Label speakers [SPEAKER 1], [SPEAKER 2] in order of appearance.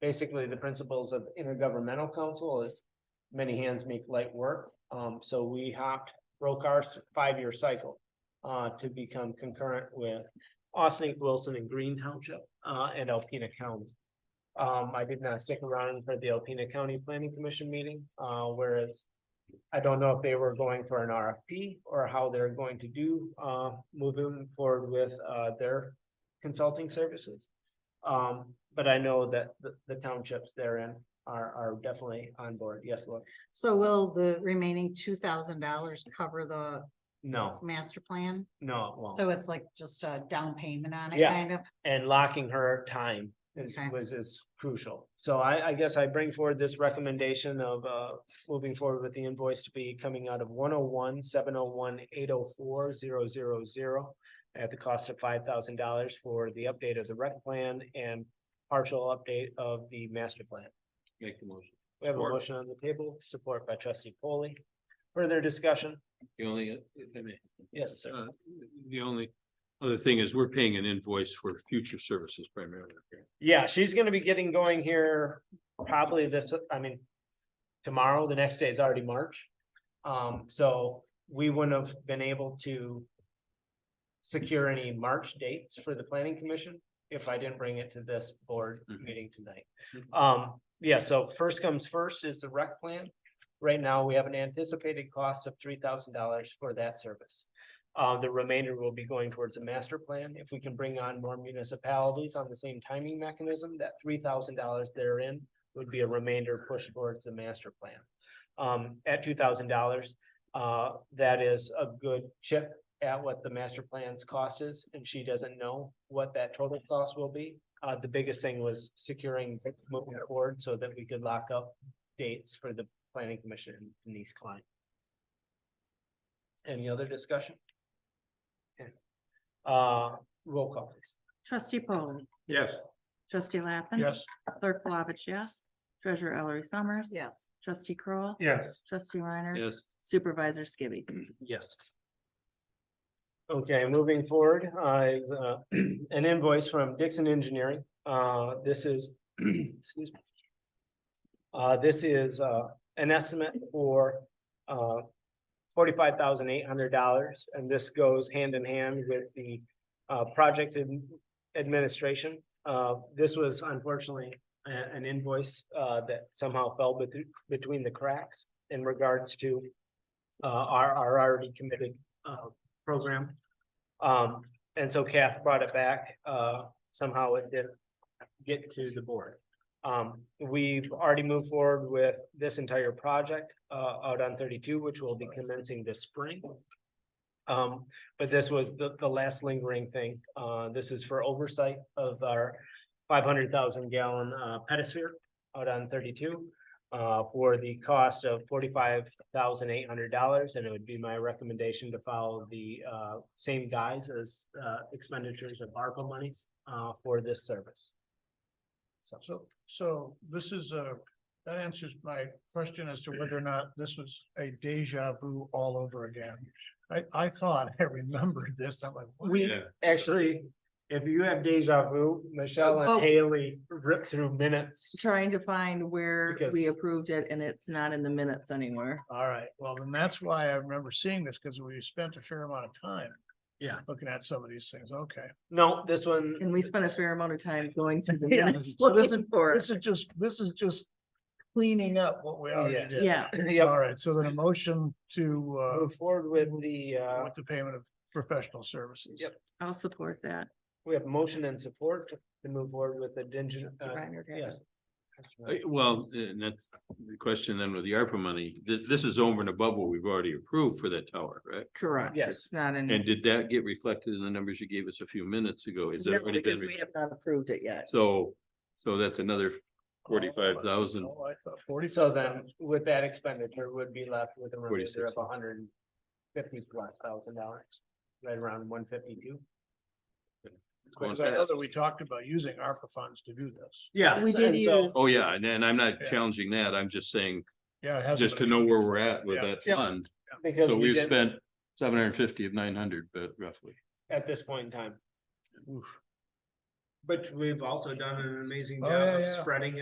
[SPEAKER 1] basically the principles of intergovernmental council is many hands make light work. Um, so we hopped, broke our s- five-year cycle uh, to become concurrent with Austin, Wilson and Green Township uh, and Alpena County. Um, I did not stick around for the Alpena County Planning Commission meeting, uh, whereas I don't know if they were going for an RFP or how they're going to do, uh, moving forward with, uh, their consulting services. Um, but I know that the, the townships therein are, are definitely on board. Yes, Lord.
[SPEAKER 2] So will the remaining two thousand dollars cover the
[SPEAKER 1] No,
[SPEAKER 2] master plan?
[SPEAKER 1] no, it won't.
[SPEAKER 2] So it's like just a down payment on it,
[SPEAKER 1] Yeah.
[SPEAKER 2] kind of?
[SPEAKER 1] and locking her time is,
[SPEAKER 2] Okay.
[SPEAKER 1] was is crucial. So I, I guess I bring forward this recommendation of, uh, moving forward with the invoice to be coming out of 101 701 804 000 at the cost of five thousand dollars for the update of the rec plan and partial update of the master plan.
[SPEAKER 3] Make the motion.
[SPEAKER 1] We have a
[SPEAKER 3] Support.
[SPEAKER 1] motion on the table, support by trustee Polly. Further discussion?
[SPEAKER 3] The only, uh, if I may,
[SPEAKER 1] Yes, sir.
[SPEAKER 3] uh, the only other thing is we're paying an invoice for future services primarily.
[SPEAKER 1] Yeah, she's gonna be getting going here probably this, I mean. Tomorrow, the next day is already March. Um, so we wouldn't have been able to. Secure any March dates for the planning commission if I didn't bring it to this board
[SPEAKER 3] Mhm.
[SPEAKER 1] meeting tonight. Um, yeah, so first comes first is the rec plan. Right now, we have an anticipated cost of three thousand dollars for that service. Uh, the remainder will be going towards a master plan. If we can bring on more municipalities on the same timing mechanism, that three thousand dollars therein would be a remainder pushed towards the master plan. Um, at two thousand dollars, uh, that is a good chip at what the master plan's cost is, and she doesn't know what that total cost will be. Uh, the biggest thing was securing moving forward so that we could lock up dates for the planning commission and Denise Klein. Any other discussion? Okay. Uh, roll call please.
[SPEAKER 4] Trustee Polly.
[SPEAKER 3] Yes.
[SPEAKER 4] Trustee Lappin. Clerk Flavich, yes. Treasurer Ellery Summers.
[SPEAKER 2] Yes.
[SPEAKER 4] Trustee Kroll,
[SPEAKER 1] Yes.
[SPEAKER 4] Trustee Reiner.
[SPEAKER 3] Yes,
[SPEAKER 4] Supervisor Skibby.
[SPEAKER 1] Yes. Okay, moving forward, uh, is, uh, an invoice from Dixon Engineering. Uh, this is, excuse me. Uh, this is, uh, an estimate for, uh, forty-five thousand eight hundred dollars, and this goes hand in hand with the, uh, project ad- administration. Uh, this was unfortunately a- an invoice, uh, that somehow fell between, between the cracks in regards to uh, our, our already committed, uh, program. Um, and so Kath brought it back, uh, somehow it didn't get to the board. Um, we've already moved forward with this entire project, uh, out on thirty-two, which will be commencing this spring. Um, but this was the, the last lingering thing. Uh, this is for oversight of our five hundred thousand gallon, uh, pedosphere out on thirty-two uh, for the cost of forty-five thousand eight hundred dollars, and it would be my recommendation to follow the, uh, same guise as, uh, expenditures of ARPA monies, uh, for this service. So,
[SPEAKER 5] So, so this is a, that answers my question as to whether or not this was a deja vu all over again. I, I thought I remembered this. I'm like, what?
[SPEAKER 1] We-
[SPEAKER 3] yeah,
[SPEAKER 1] actually, if you have deja vu, Michelle
[SPEAKER 4] Oh.
[SPEAKER 1] and Haley ripped through minutes.
[SPEAKER 4] Trying to find where
[SPEAKER 1] Because-
[SPEAKER 4] we approved it and it's not in the minutes anywhere.
[SPEAKER 5] All right, well, then that's why I remember seeing this because we spent a fair amount of time.
[SPEAKER 1] Yeah.
[SPEAKER 5] Looking at some of these things. Okay.
[SPEAKER 1] No, this one.
[SPEAKER 4] And we spent a fair amount of time going through the
[SPEAKER 5] Yeah,
[SPEAKER 4] minutes
[SPEAKER 5] so this is-
[SPEAKER 4] looking for it.
[SPEAKER 5] This is just, this is just cleaning up what we already
[SPEAKER 1] Yes.
[SPEAKER 5] did.
[SPEAKER 4] Yeah,
[SPEAKER 1] Yep,
[SPEAKER 5] All right, so then a motion to,
[SPEAKER 1] move forward with the,
[SPEAKER 5] uh,
[SPEAKER 1] uh,
[SPEAKER 5] with the payment of professional services.
[SPEAKER 1] Yep.
[SPEAKER 4] I'll support that.
[SPEAKER 1] we have motion and support to move forward with the digital.
[SPEAKER 4] Reiner did.
[SPEAKER 1] Yes.
[SPEAKER 3] Uh, well, and that's the question then with the ARPA money, this, this is over and above what we've already approved for that tower, right?
[SPEAKER 1] Mm-hmm.
[SPEAKER 4] Correct.
[SPEAKER 1] Yes.
[SPEAKER 4] It's not in.
[SPEAKER 3] And did that get reflected in the numbers you gave us a few minutes ago? Is that
[SPEAKER 4] No,
[SPEAKER 3] already been?
[SPEAKER 4] Because we
[SPEAKER 3] re-
[SPEAKER 4] have not approved it yet.
[SPEAKER 3] So, so that's another forty-five thousand.
[SPEAKER 5] Oh, I thought Forty.
[SPEAKER 1] So then with that expenditure would be left with a remainder of
[SPEAKER 3] 46.
[SPEAKER 1] a hundred and fifty plus thousand dollars, right around one fifty-two.
[SPEAKER 5] Because I know that we talked about using ARPA funds to do this.
[SPEAKER 1] Yeah.
[SPEAKER 4] We did
[SPEAKER 1] And so,
[SPEAKER 4] use-
[SPEAKER 3] Oh, yeah, and, and I'm not
[SPEAKER 5] Yeah.
[SPEAKER 3] challenging that. I'm just saying,
[SPEAKER 5] Yeah. it hasn't
[SPEAKER 3] just to
[SPEAKER 5] been-
[SPEAKER 3] know where we're at with
[SPEAKER 5] Yeah.
[SPEAKER 3] that
[SPEAKER 1] Yeah.
[SPEAKER 3] fund.
[SPEAKER 1] because
[SPEAKER 3] So
[SPEAKER 1] we
[SPEAKER 3] we've
[SPEAKER 1] did
[SPEAKER 3] spent seven hundred and fifty of nine hundred, but roughly.
[SPEAKER 1] at this point in time,
[SPEAKER 5] Oof.
[SPEAKER 1] but we've also done an amazing
[SPEAKER 5] Oh, yeah,
[SPEAKER 1] job of
[SPEAKER 5] yeah.
[SPEAKER 1] spreading